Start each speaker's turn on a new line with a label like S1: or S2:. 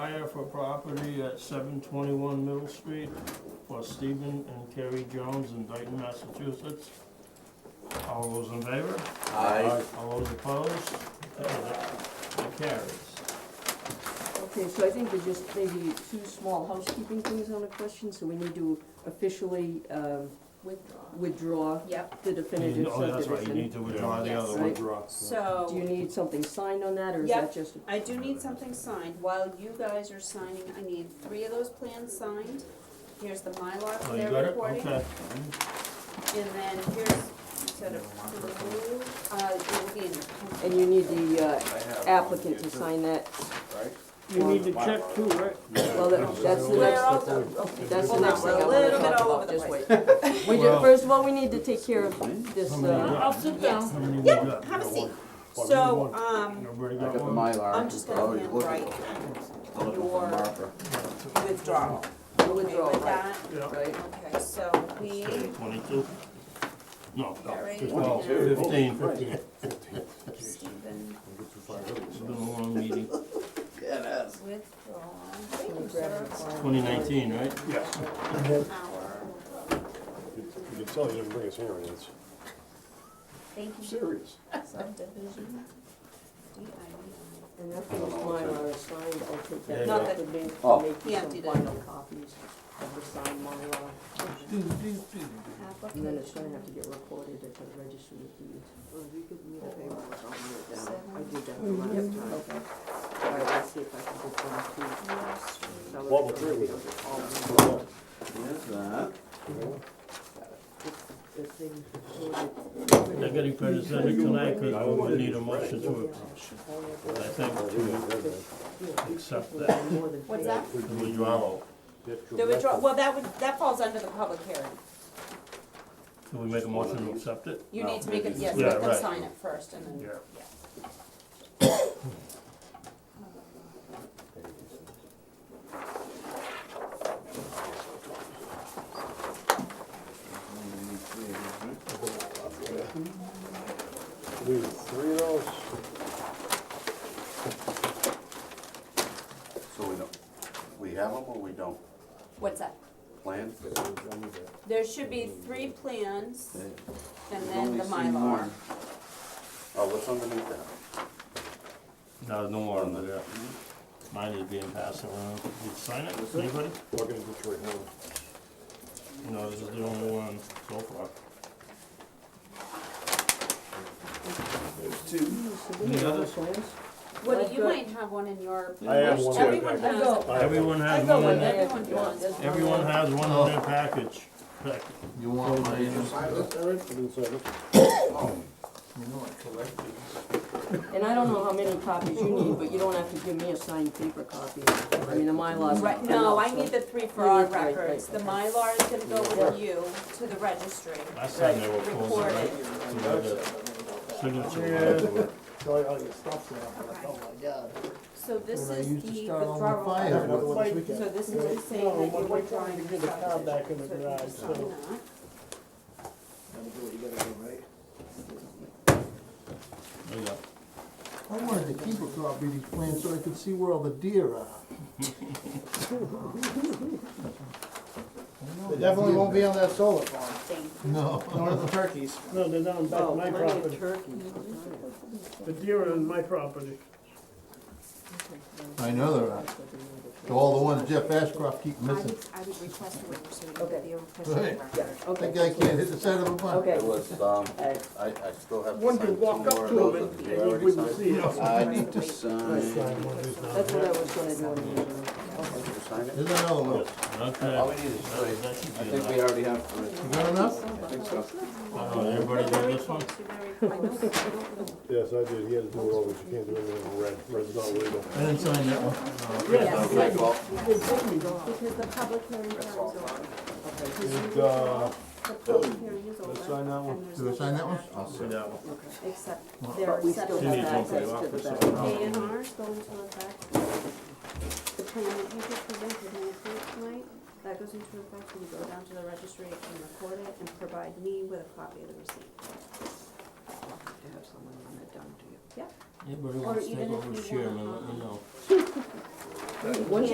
S1: for property at seven twenty-one Middle Street for Stephen and Kerry Jones in Dayton, Massachusetts. All those in favor?
S2: Aye.
S1: All those opposed? Okay, that- that carries.
S3: Okay, so I think there's just maybe two small housekeeping things on the question, so we need to officially, um,
S4: Withdraw.
S3: withdraw
S4: Yep,
S3: the definitive
S1: Oh, that's right, you
S3: subdivision.
S1: need to withdraw the
S4: Yes.
S1: other one.
S3: Right.
S2: Withdraw.
S3: Do you
S4: so
S3: need something signed on that, or is
S4: Yep.
S3: that just?
S4: I do need something signed. While you guys are signing, I need three of those plans signed. Here's the Mylar
S1: Oh,
S4: for
S1: you
S4: their
S1: got it?
S4: recording.
S1: Okay.
S4: And then here's, instead of remove, uh, it will be in. the-
S3: And you need the uh,
S2: I have
S3: applicant
S2: one,
S3: to
S2: it's a-
S3: sign that,
S2: Right?
S1: You need to check too, right?
S3: well, that- that's the next,
S4: Well,
S3: okay, that's the
S4: Hold
S3: next thing
S4: on, we're
S3: I
S4: a
S3: wanna
S4: little bit
S3: talk
S4: all
S3: about,
S4: over the
S3: just
S4: place.
S3: wait. We do,
S1: Well-
S3: first of all, we need to take care of this,
S1: Somebody
S3: uh,
S1: got-
S5: sit
S4: Yes,
S1: how many we
S4: yeah,
S1: got?
S4: have a seat. So, um,
S1: Everybody
S6: I got
S1: got
S6: the
S1: one?
S6: Mylar.
S4: I'm just
S6: Oh,
S4: gonna
S6: you're
S4: hand
S6: looking-
S4: write
S6: I'm looking for a
S4: your
S6: marker.
S4: withdrawal.
S3: the
S4: Okay,
S3: withdrawal, right,
S4: with that,
S1: Yeah.
S3: right?
S4: okay, so we,
S1: Twenty-two? No,
S4: Right.
S1: no, twelve,
S6: Twenty-two.
S1: fifteen, fifteen.
S4: Stephen,
S1: It's been a long meeting.
S4: withdrawal,
S3: Let me
S4: thank you,
S3: grab
S4: sir.
S3: your file.
S1: Twenty nineteen, right?
S7: Yes,
S4: Our,
S7: you can tell you didn't bring us here, it's
S4: thank you,
S7: serious.
S4: subdivision, D
S3: And after this Mylar is signed, I'll take
S1: Yeah,
S3: that, not
S4: yeah.
S3: that we make
S6: Oh.
S4: He
S3: some
S4: emptied it.
S3: final copies of the signed Mylar.
S4: I E.
S3: And then it's
S4: Application.
S3: gonna have to get recorded at the registry of deeds. Well, you give me the paperwork, I'll write it
S4: down. I
S3: did that the last time. Okay. All right, let's see if I can get one too.
S4: Nursery.
S3: So
S7: What
S3: it's
S7: we're
S3: gonna be
S7: doing.
S3: all in one.
S7: Well,
S6: Here's that.
S3: The thing recorded.
S1: They're getting pretty excited tonight, cause we need a motion to, I think, to accept that, uh,
S4: What's that?
S1: the withdrawal.
S4: The withdrawal, well, that would, that falls under the public hearing.
S1: Can we make a motion to accept it?
S4: You need to make it, yes,
S1: Yeah,
S4: let them
S1: right.
S4: sign it first and then.
S7: We need three of those.
S6: So we don't, we have them or we don't
S4: What's that?
S6: plan?
S4: There should be three plans and
S6: We've
S4: then
S6: only
S4: the
S6: seen
S4: Mylar.
S6: one. Oh, what's underneath that?
S1: No, no more on that. Mine is being passed around. Did you sign it? Anybody?
S7: We're gonna do three, no.
S1: No, this is the only one so far. Any others?
S4: Woody, you
S3: I've got-
S4: might have one in your.
S7: I have one.
S4: Everyone
S7: I-
S4: has it.
S1: Everyone has
S4: I got
S1: one in
S4: one.
S1: their,
S4: Everyone does.
S1: everyone has one in
S8: Oh.
S1: their package. Pack-
S9: You want my,
S7: I didn't sign it.
S3: And I don't know how many copies you need, but you don't have to give me a signed paper copy. I mean, the Mylar's.
S4: Right, Oh, no, I need the three for
S3: You
S4: our
S3: need- right,
S4: records. The
S3: right,
S4: Mylar is gonna go with you to the registry.
S1: Last time they were closed,
S4: Record
S1: right?
S4: it.
S1: So we had a Signature. line.
S9: tell you all your stuff there, I'm like,
S4: Okay.
S9: oh my god.
S4: So this
S9: When I
S4: is
S9: used
S4: the
S9: to start on my
S4: withdrawal.
S9: fire,
S4: letter.
S9: another one this
S4: So
S9: weekend.
S4: this is just saying
S9: No,
S4: that you're
S9: but we're
S4: withdrawing
S9: trying to
S4: the
S9: get the car
S4: subdivision.
S9: back in the
S4: So you
S9: garage,
S4: sign
S9: so-
S4: that.
S9: Gotta do what you gotta do, right?
S1: There you go.
S9: I wanted to keep a copy of these plans so I could see where all the deer are. They definitely won't be on that solar farm. No. Nor the turkeys.
S8: No, they're down back
S3: Oh,
S8: my
S3: plenty
S8: property.
S3: of turkeys.
S8: The deer are on my property.
S9: I know there are. All the ones Jeff Ashcroft keep
S4: I would, I would request a waiver so we can get the official
S9: Right.
S4: record.
S3: Okay.
S9: can't hit the side of a bus.
S3: Okay.
S6: It was, um,
S3: Uh,
S6: I, I still have to
S8: One
S6: sign
S8: could
S6: two
S8: walk
S6: more
S8: up
S6: of
S8: to
S6: those.
S8: them
S6: Have
S8: and
S6: you
S8: you
S6: already
S8: wouldn't
S6: signed?
S8: see them.
S6: I need to sign.
S3: That's what I was gonna do. in the beginning.
S6: Did you sign it?
S9: There's another one.
S1: Okay.
S6: All we need is three.
S1: That should
S6: I
S1: be
S6: think
S1: enough.
S6: we already have
S9: You
S6: three.
S9: got enough?
S6: I think so.
S1: Oh, everybody got this one?
S7: Yes, I did, he had to do it all, but you can't do anything in red, red's not legal.
S1: I didn't sign that one.
S4: Yes,
S6: Okay, well,
S4: because the public hearing time is over.
S7: And, uh,
S4: The public hearing is over.
S7: let's sign that one.
S4: and there's
S9: Do I sign that one?
S4: nothing
S6: I'll
S1: See
S6: send it.
S1: that one.
S4: after, Except there
S3: But
S4: are
S3: we still
S4: exceptions.
S1: You need
S3: have
S1: one for your
S3: access to the
S1: office,
S3: back.
S4: A and R's going to affect the plan that you just presented and approved tonight. That goes into effect when you go down to the registry and record it and provide me with a copy of the receipt.
S3: To have someone run it down to you.
S1: Anybody wants to
S4: even
S1: take
S4: if
S1: over
S4: you
S1: the chairman,
S4: wanna,
S1: let me know.
S3: Once